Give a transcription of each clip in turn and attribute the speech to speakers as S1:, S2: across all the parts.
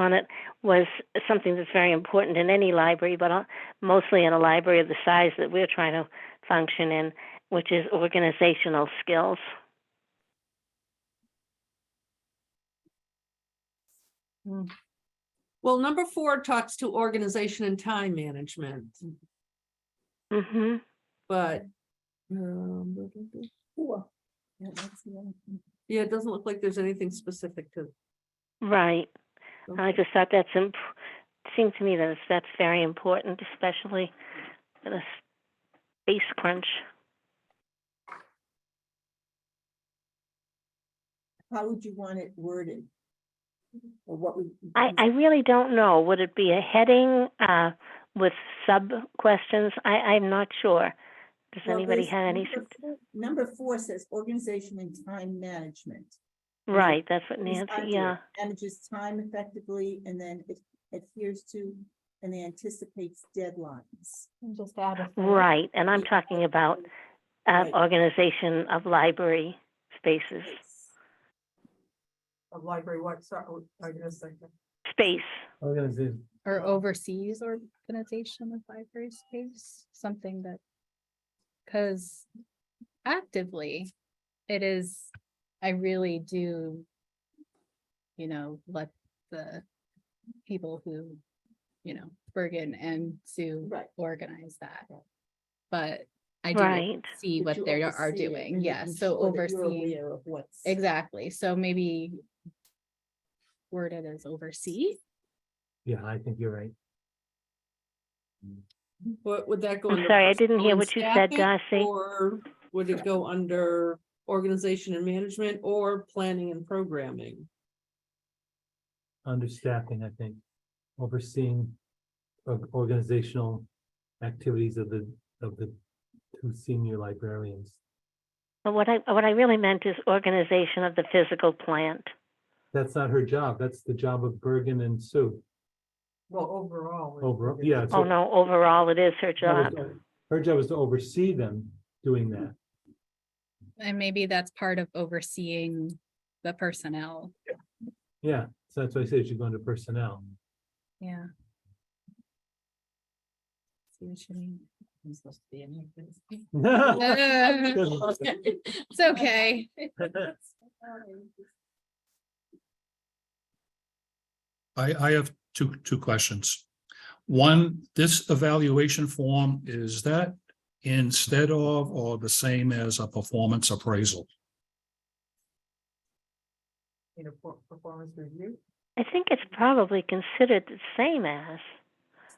S1: on it was something that's very important in any library, but uh, mostly in a library of the size that we're trying to function in, which is organizational skills.
S2: Well, number four talks to organization and time management,
S1: hmm
S2: but. um,
S3: Four. Yeah, that's the other thing.
S2: Yeah, it doesn't look like there's anything specific to.
S1: Right. I
S2: okay.
S1: just thought that's imp- seemed to me that it's- that's very important, especially in a space crunch.
S3: How would you want it worded? Or what would?
S1: I, I really don't know. Would it be a heading uh, with sub questions? I, I'm not sure. Does
S3: Well,
S1: anybody
S3: there's
S1: have any?
S3: number
S1: sug-
S3: four- Number four says organization and time management.
S1: Right, that's what
S3: These
S1: Nancy.
S3: are the-
S1: Yeah,
S3: Manages time effectively and then it adheres to and anticipates deadlines.
S4: Just add a. third.
S1: right. And I'm
S3: Yeah.
S1: talking about uh,
S3: Right.
S1: organization of library spaces.
S5: of library, what, sorry, oh, I just think.
S1: Space.
S6: Organization.
S4: Or overseas organization of library space, something that. Cause actively, it is, I really do. You know, let the people who, you know, Bergen and Sue
S3: Right.
S4: organize that.
S3: Right.
S4: But I do
S1: Right.
S4: see
S3: That
S4: what
S3: you
S4: they are
S3: oversee it
S4: doing,
S3: and
S4: yeah,
S3: making
S4: so
S3: sure that you're
S4: overseeing.
S3: aware of what's-
S4: Exactly, so maybe. Worded as oversee,
S6: Yeah, I think you're right.
S2: What would that go?
S1: I'm
S2: under
S1: sorry, I didn't hear
S2: personnel and
S1: what you said,
S2: staffing,
S1: Darcy.
S2: Or would it go under organization and management or planning and programming?
S6: Understaffing, I think, overseeing or- organizational activities of the, of the two senior librarians.
S1: But what I what I really meant is organization of the physical plant.
S6: That's not her job. That's the job of Bergen and Sue.
S5: Well, overall. we-
S6: Overall, yeah, it's
S1: Oh
S6: So-
S1: no, overall it is her
S6: That
S1: job.
S6: was- Her job is to oversee them doing that.
S4: and maybe that's part of overseeing the personnel,
S6: Yeah, so that's why I said she's going to personnel.
S4: yeah. See what you mean?
S5: It's supposed to be in here.
S4: Uh, It's okay,
S7: I, I have two, two questions. One, this evaluation form, is that instead of or the same as a performance appraisal?
S5: In a per- performance review.
S1: I think it's probably considered the same as.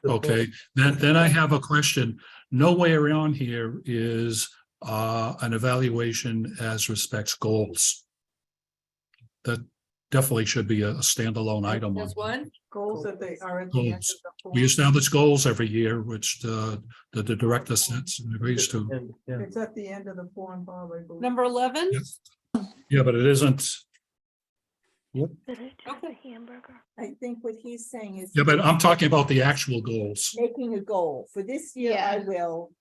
S7: Okay, then, then I have a question. Nowhere on here is uh, an evaluation as respects goals. That definitely should be a a standalone item. on
S2: There's one,
S5: Goals that they are at the end of
S7: Goals.
S5: the. form.
S7: We establish goals every year, which the, the the director sets and agrees to.
S6: And- yeah,
S5: It's at the end of the form, Bob, I believe.
S2: number eleven,
S7: Yes. Yeah, but it isn't.
S1: But it's just
S2: Okay.
S1: a hamburger.
S3: I think what he's saying is.
S7: Yeah, but I'm talking about the actual goals.
S3: Making a goal. For this year, I
S4: Yeah.
S3: will.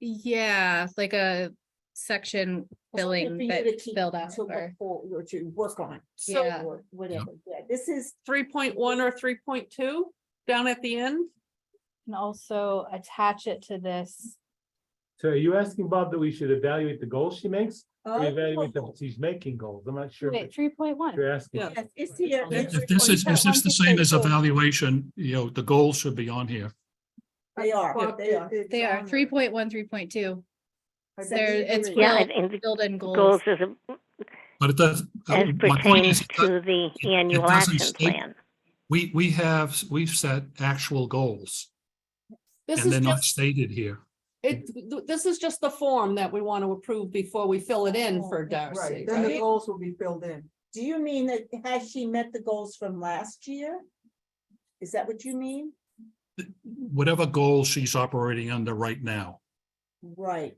S4: yeah, like a section
S3: or something for
S4: billing
S3: you
S4: that
S3: to keep-
S4: filled out
S3: To look
S4: or,
S3: for, or to work on.
S2: So-
S4: Yeah.
S3: Or whatever. Yeah, this is
S2: three point one or three point two, down at the end.
S4: and also attach it to this.
S6: So are you asking Bob that we should evaluate the goals she makes? Or
S3: Oh,
S6: Evaluate that she's making goals. I'm not sure
S4: Wait,
S6: what
S4: three point one.
S6: you're asking.
S2: Yeah.
S3: Yes, it's here.
S2: If-
S3: it's
S7: If this is,
S3: recorded.
S7: is this the same as evaluation, you know, the goals should be on here.
S3: They are,
S2: Bob,
S3: they are. Um,
S5: It- it's
S4: They
S5: on
S4: are
S5: there.
S4: three point one, three point two,
S5: I
S3: So
S4: there,
S3: these are
S4: it's
S3: in-
S1: Yeah,
S4: Well,
S1: and the
S4: filled in
S1: goals
S4: goals.
S1: is a-
S7: But it does. uh,
S1: as
S7: my point
S1: pertains
S7: is,
S1: to the
S7: it
S1: annual
S7: doesn't
S1: action
S7: state-
S1: plan.
S7: We, we have, we've set actual goals
S2: This
S7: and
S2: is
S7: they're not
S2: just,
S7: stated here.
S2: it, th- this is just the form that we want to approve before we fill it in for Darcy.
S5: Right, then the
S2: right?
S5: goals will be filled in.
S3: Do you mean that, has she met the goals from last year? Is that what you mean?
S7: Whatever goal she's operating under right now.
S3: Right.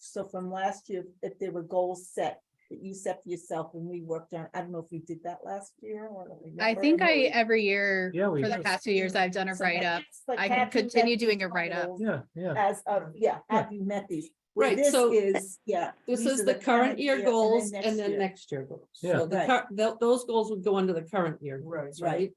S3: So from last year, if there were goals set, that you set for yourself and we worked on, I don't know if we did that last year or. don't
S4: I
S3: remember.
S4: think I, every year,
S6: Yeah, we
S4: for the
S6: do.
S4: past two years, I've done a
S3: So that-
S4: write-up.
S3: it's like,
S4: I can
S3: have you met
S4: continue doing
S3: these
S4: a write-up.
S3: goals
S6: Yeah, yeah.
S3: As of, yeah, have you met these? Where
S2: Right,
S3: this
S2: so
S3: Is, yeah.
S2: This
S3: these
S2: is
S3: are
S2: the current year
S3: and then
S2: goals
S3: next
S2: and then
S3: year.
S2: next year goals.
S6: Yeah.
S2: So the,
S3: Right.
S2: cur- tho- those goals would go under the current year
S5: Right.
S2: goals, right?